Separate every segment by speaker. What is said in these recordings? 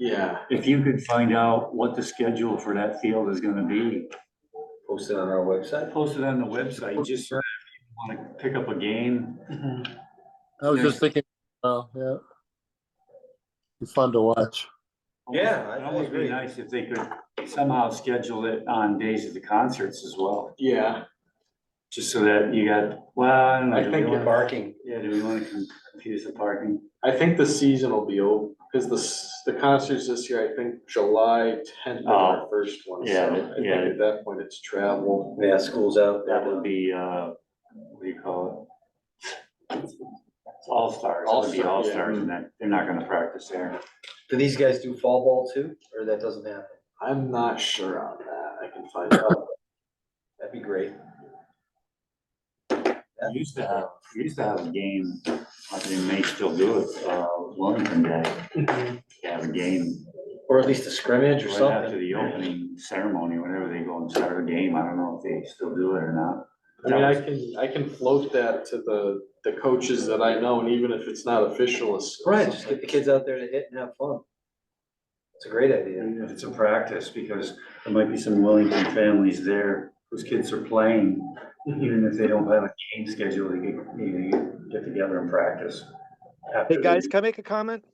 Speaker 1: if you could find out what the schedule for that field is gonna be,
Speaker 2: Post it on our website.
Speaker 1: post it on the website, just so if you wanna pick up a game.
Speaker 3: I was just thinking, oh, yeah. Be fun to watch.
Speaker 2: Yeah, I-
Speaker 1: It
Speaker 2: I
Speaker 1: almost be
Speaker 2: agree.
Speaker 1: nice if they could somehow schedule it on days of the concerts as well,
Speaker 4: Yeah,
Speaker 1: just so that you got, well, I don't know.
Speaker 4: I
Speaker 1: do we
Speaker 4: think
Speaker 1: wanna-
Speaker 4: it-
Speaker 2: Barking.
Speaker 1: Yeah, do we wanna confuse the parking?
Speaker 4: I think the season will be over, because the, s- the concerts this year, I think July tenth is our first one. so
Speaker 1: Oh, yeah,
Speaker 4: I think
Speaker 1: yeah.
Speaker 4: At that point, it's travel.
Speaker 2: Yeah, school's out.
Speaker 1: That would be, uh, what do you call it? It's all stars, it would be all
Speaker 4: All-star, yeah.
Speaker 1: stars, and then they're not gonna practice there.
Speaker 2: Do these guys do fall ball too, or that doesn't happen?
Speaker 4: I'm not sure on that, I can find out.
Speaker 2: That'd be great.
Speaker 1: We Used to have, we used to have a game, I think they may still do it, uh, Wilmington Day, they have a game
Speaker 2: Or at least a scrimmage
Speaker 1: Mm-hmm.
Speaker 2: or
Speaker 1: right
Speaker 2: something.
Speaker 1: after the opening ceremony, whenever they go and start a game, I don't know if they still do it or not.
Speaker 4: I mean, I can, I can float that to the, the coaches that I know, and even if it's not official, it's.
Speaker 2: Right, just get the kids out there to hit and have fun. It's a great idea.
Speaker 1: Even if it's a practice, because there might be some Wellington families there whose kids are playing. Even if they don't have a game schedule, they get, you know, you get together and practice.
Speaker 5: Hey, guys, can I make a comment?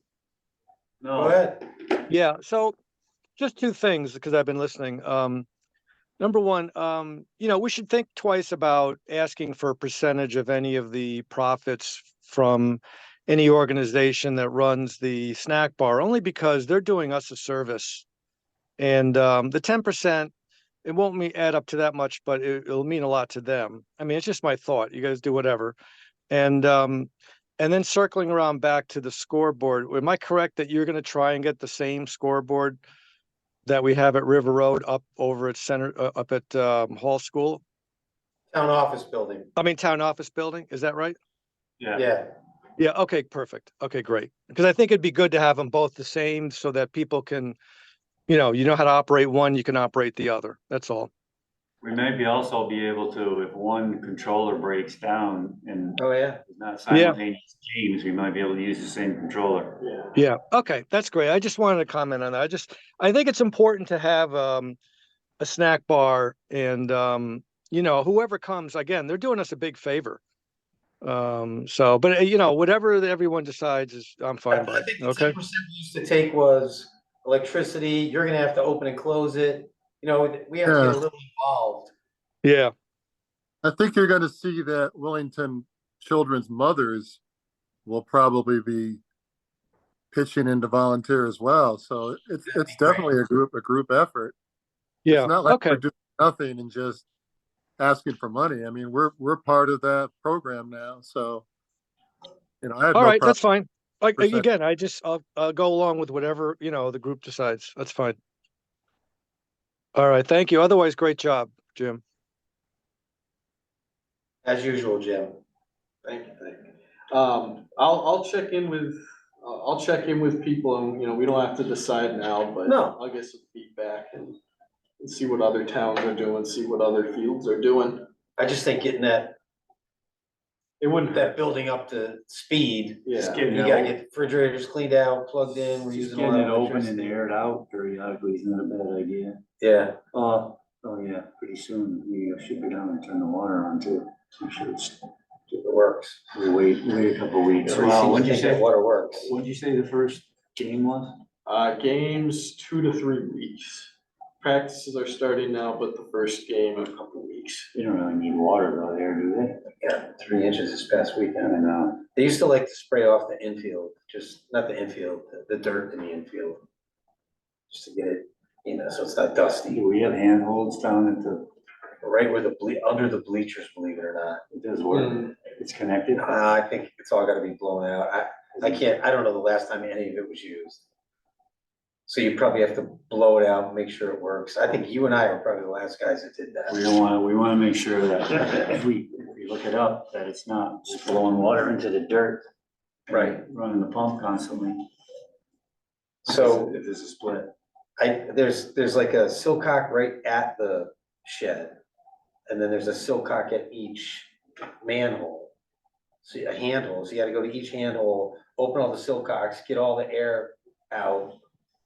Speaker 2: Go
Speaker 1: No,
Speaker 2: ahead.
Speaker 5: Yeah, so just two things because I've been listening. Um, number one, um, you know, we should think twice about asking for a percentage of any of the profits from any organization that runs the snack bar, only because they're doing us a service. And um, the ten percent, it won't me add up to that much, but it, it'll mean a lot to them. I mean, it's just my thought. You guys do whatever. And um, and then circling around back to the scoreboard, am I correct that you're going to try and get the same scoreboard that we have at River Road up over at Center, uh, up at um, Hall School?
Speaker 2: Town office building,
Speaker 5: I mean, Town Office Building, is that right?
Speaker 1: yeah,
Speaker 2: yeah.
Speaker 5: Yeah, okay, perfect. Okay, great. Because I think it'd be good to have them both the same so that people can, you know, you know how to operate one, you can operate the other. That's all.
Speaker 1: we may be also be able to, if one controller breaks down and
Speaker 2: Oh, yeah.
Speaker 1: there's not
Speaker 5: Yeah.
Speaker 1: simultaneous games, we might be able to use the same controller.
Speaker 4: Yeah.
Speaker 5: Yeah, okay, that's great. I just wanted to comment on that. I just, I think it's important to have um a snack bar and um, you know, whoever comes, again, they're doing us a big favor. Um, so, but uh, you know, whatever that everyone decides is, I'm fine by,
Speaker 2: I
Speaker 5: it,
Speaker 2: think the
Speaker 5: okay?
Speaker 2: ten percent we used to take was electricity, you're gonna have to open and close it. You know, we have to get a
Speaker 3: Yeah.
Speaker 2: little involved.
Speaker 5: Yeah,
Speaker 3: I think you're gonna see that Wellington children's mothers will probably be pitching in to volunteer as well, so it's, it's definitely a group, a group effort.
Speaker 5: yeah,
Speaker 3: It's not like
Speaker 5: okay,
Speaker 3: we're doing nothing and just asking for money. I mean, we're, we're part of that program now, so. You know, I had no
Speaker 5: all right,
Speaker 3: problem.
Speaker 5: that's fine. Like, eh,
Speaker 3: percent.
Speaker 5: again, I just, I'll, I'll go along with whatever, you know, the group decides. That's fine. All right, thank you. Otherwise, great job, Jim.
Speaker 2: As usual, Jim.
Speaker 4: Thank you, thank you. Um, I'll, I'll check in with, I'll, I'll check in with people and, you know, we don't have to decide now, but.
Speaker 2: No.
Speaker 4: I'll get some feedback and, and see what other towns are doing, see what other fields are doing.
Speaker 2: I just think getting that,
Speaker 4: It wouldn't,
Speaker 2: that building up to speed,
Speaker 1: Just
Speaker 4: yeah,
Speaker 1: getting
Speaker 2: you
Speaker 1: it
Speaker 2: gotta
Speaker 1: open-
Speaker 2: get refrigerators cleaned out, plugged in, we're
Speaker 1: Just
Speaker 2: using a
Speaker 1: getting
Speaker 2: lot
Speaker 1: it
Speaker 2: of
Speaker 1: open and
Speaker 2: electricity.
Speaker 1: aired out periodically is not a bad idea.
Speaker 2: Yeah,
Speaker 1: Uh, oh yeah, pretty soon we uh, should go down and turn the water on too. I'm sure it's,
Speaker 2: it works.
Speaker 1: we wait, wait a couple weeks.
Speaker 2: It really seems to think that Water works.
Speaker 1: What'd you say the first game was?
Speaker 4: uh, games two to three weeks. Practices are starting now, but the first game in a couple weeks.
Speaker 1: They don't really need water though there, do they?
Speaker 2: Yeah, three inches this past
Speaker 1: I
Speaker 2: weekend.
Speaker 1: don't know.
Speaker 2: They used to like to spray off the infield, just, not the infield, the- the dirt in the infield. Just to get it, you know, so it's not dusty,
Speaker 1: Do we have handholds down at the,
Speaker 2: right where the ble, under the bleachers, believe it or not.
Speaker 1: it does work, it's connected?
Speaker 2: Uh, I think it's all gotta be blown out. I, I can't, I don't know the last time any of it was used. So you probably have to blow it out, make sure it works. I think you and I are probably the last guys that did
Speaker 1: We
Speaker 2: that.
Speaker 1: don't wanna, we wanna make sure that if we, if we look it up, that it's not just blowing water into the dirt. and
Speaker 2: Right.
Speaker 1: Running the pump constantly.
Speaker 2: So
Speaker 1: If there's a split.
Speaker 2: I, there's, there's like a silcock right at the shed. And then there's a silcock at each manhole. So a handhole, so you gotta go to each handhole, open all the silcocks, get all the air out.